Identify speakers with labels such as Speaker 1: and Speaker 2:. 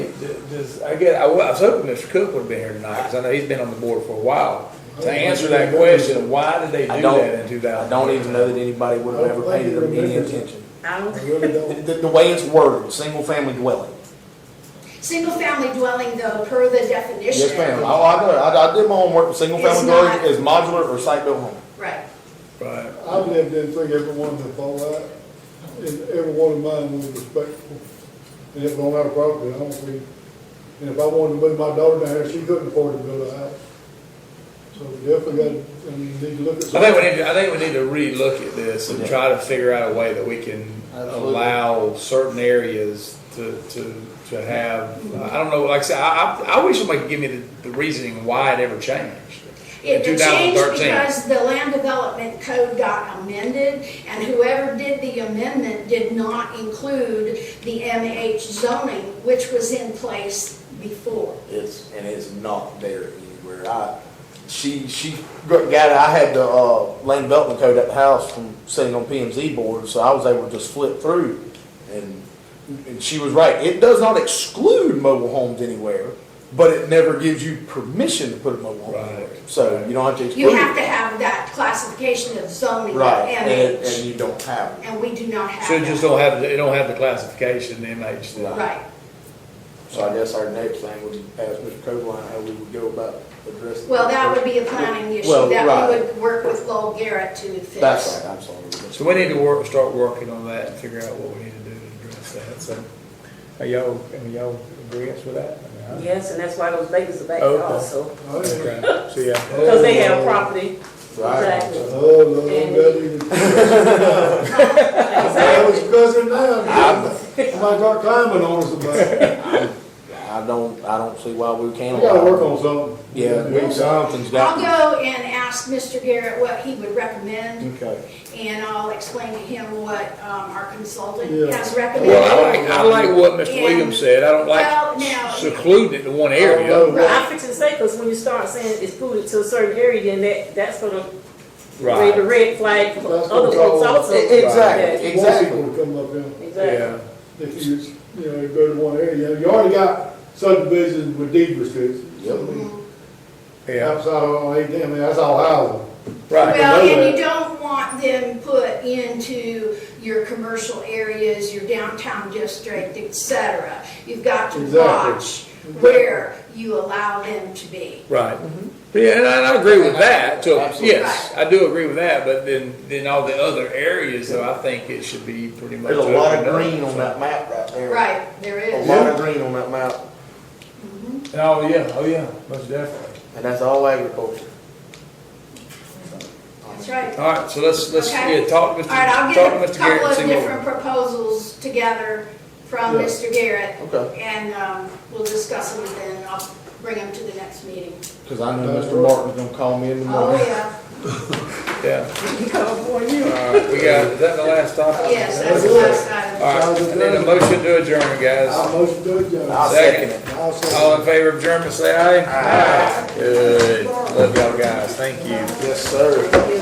Speaker 1: Does, I guess, I wa- I was hoping Mr. Cook would've been here tonight, because I know he's been on the board for a while. To answer that question, of why did they
Speaker 2: I
Speaker 1: do
Speaker 2: don't-
Speaker 1: that in two
Speaker 2: I
Speaker 1: thousand?
Speaker 2: don't even know that anybody would have ever paid them any attention.
Speaker 3: I
Speaker 4: Um,
Speaker 5: I
Speaker 3: don't,
Speaker 5: really don't.
Speaker 2: The, the way it's worded, single-family dwelling.
Speaker 4: Single-family dwelling though, per the definition.
Speaker 2: Yes, ma'am. I, I, know it. I I did my homework. Single-family
Speaker 4: It's
Speaker 2: dwelling
Speaker 4: not-
Speaker 2: is modular or site-built home.
Speaker 4: Right.
Speaker 1: Right.
Speaker 5: I've lived in three, every one of them fall out, and every one of mine was respectful. And it was on our property, I don't think, and if I wanted to move my daughter down there, she couldn't afford to build a house. So we definitely got, I mean, need to look at.
Speaker 1: I think we need, to- I think we need to relook at this and
Speaker 2: Yeah.
Speaker 1: try to figure out a way that we can
Speaker 2: Absolutely.
Speaker 1: allow certain areas to, to, to have, I don't know, like I said, I, I, I wish somebody could give me the, the reasoning why it ever changed.
Speaker 4: It
Speaker 1: in
Speaker 4: changed
Speaker 1: 2013.
Speaker 4: because the land development code got amended, and whoever did the amendment did not include the MH zoning, which was in place before.
Speaker 2: It's, and it's not there anywhere. I, she, she got it. I had the, uh, land development code at the house from sitting on PMZ board, so I was able to just flip through. And, and she was right. It does not exclude mobile homes anywhere, but it never gives you permission to put a mobile home anywhere.
Speaker 1: Right.
Speaker 2: So you don't have to exclude
Speaker 4: You
Speaker 2: it.
Speaker 4: have to have that classification of zoning,
Speaker 2: Right, and, and
Speaker 4: MH,
Speaker 2: you don't have it.
Speaker 4: and we do not have
Speaker 1: So it just
Speaker 4: that.
Speaker 1: don't have, it don't have the classification, the MH thing.
Speaker 4: Right.
Speaker 2: So I guess our next thing would be ask Mr. Copeland how we would go about addressing.
Speaker 4: Well, that would be a planning issue,
Speaker 2: Well,
Speaker 4: that we
Speaker 2: right.
Speaker 4: would work with Lowell Garrett to fix.
Speaker 2: That's right, I'm sorry.
Speaker 1: So we need to work, start working on that and figure out what we need to do to address that, so. Are y'all, are y'all agreeance with that? I mean,
Speaker 3: yes, and that's why those babies are back
Speaker 1: Okay.
Speaker 3: also,
Speaker 1: I- Okay, so yeah.
Speaker 3: because they have property.
Speaker 2: Right.
Speaker 3: Exactly.
Speaker 5: Oh, no, that even. That was cousin now, I might start climbing on us about it.
Speaker 2: I don't, I don't see why we can't.
Speaker 5: We gotta work on something.
Speaker 2: Yeah, we- something's
Speaker 4: I'll
Speaker 2: got.
Speaker 4: go and ask Mr. Garrett what he would recommend,
Speaker 2: Okay.
Speaker 4: and I'll explain to him what um, our consultant
Speaker 5: Yeah.
Speaker 4: has recommended.
Speaker 1: Well, I like, I like what Mr. Williams said, I don't
Speaker 4: Well, now-
Speaker 1: like secluding it to one area.
Speaker 5: Oh,
Speaker 3: Well, I fix it say, because when you start saying it's polluted to a certain area, then that, that's gonna raise the
Speaker 1: Right,
Speaker 3: red flag for
Speaker 5: That's
Speaker 3: other
Speaker 5: what
Speaker 3: folks
Speaker 5: y'all-
Speaker 3: also.
Speaker 5: More
Speaker 2: Exactly,
Speaker 5: people
Speaker 2: exactly.
Speaker 5: to come up here.
Speaker 3: Yeah, Exactly.
Speaker 1: yeah,
Speaker 5: if you, you know, go to one area, you already got subdivisions with deed restrictions.
Speaker 2: Yep.
Speaker 1: yeah,
Speaker 5: Outside of eighteen, I mean, that's all housing.
Speaker 1: right,
Speaker 4: Well,
Speaker 5: know
Speaker 4: and you don't want them put into your commercial areas, your downtown district, et cetera. You've got to
Speaker 5: Exactly.
Speaker 4: watch where you allow them to be.
Speaker 1: right. Yeah, and I, and I agree with that, so,
Speaker 2: Absolutely.
Speaker 1: yes, I do agree with that, but then, then all the other areas, though, I think it should be pretty much.
Speaker 2: There's a lot of
Speaker 1: opened up.
Speaker 2: green on that map right there.
Speaker 4: Right, there
Speaker 2: A
Speaker 4: is.
Speaker 2: lot of green on that map,
Speaker 1: Oh, yeah, oh, yeah, most definitely.
Speaker 2: and that's all agriculture.
Speaker 4: That's right.
Speaker 1: All right, so let's, let's,
Speaker 4: Okay.
Speaker 1: yeah, talk to Mr.
Speaker 4: All right,
Speaker 1: talk
Speaker 4: I'll
Speaker 1: to
Speaker 4: get a
Speaker 1: Mr. Garrett
Speaker 4: couple
Speaker 1: and
Speaker 4: of
Speaker 1: see
Speaker 4: different
Speaker 1: what.
Speaker 4: proposals together from
Speaker 5: Yeah.
Speaker 4: Mr. Garrett.
Speaker 2: Okay.
Speaker 4: And um, we'll discuss them and then I'll bring them to the next meeting.
Speaker 2: Cause I know Mr. Martin's gonna call me in the
Speaker 4: Oh,
Speaker 2: morning.
Speaker 4: yeah,
Speaker 1: Yeah,
Speaker 3: California.
Speaker 1: all right, we got, is that the last topic?
Speaker 4: yes, that's the last item.
Speaker 1: All right, I need a motion to adjourn, guys.
Speaker 5: I'll motion to adjourn.
Speaker 2: I'll second it.
Speaker 5: I'll second.
Speaker 1: All in favor of adjournment, say aye. Aye. Good, love y'all guys, thank you.
Speaker 2: Yes, sir.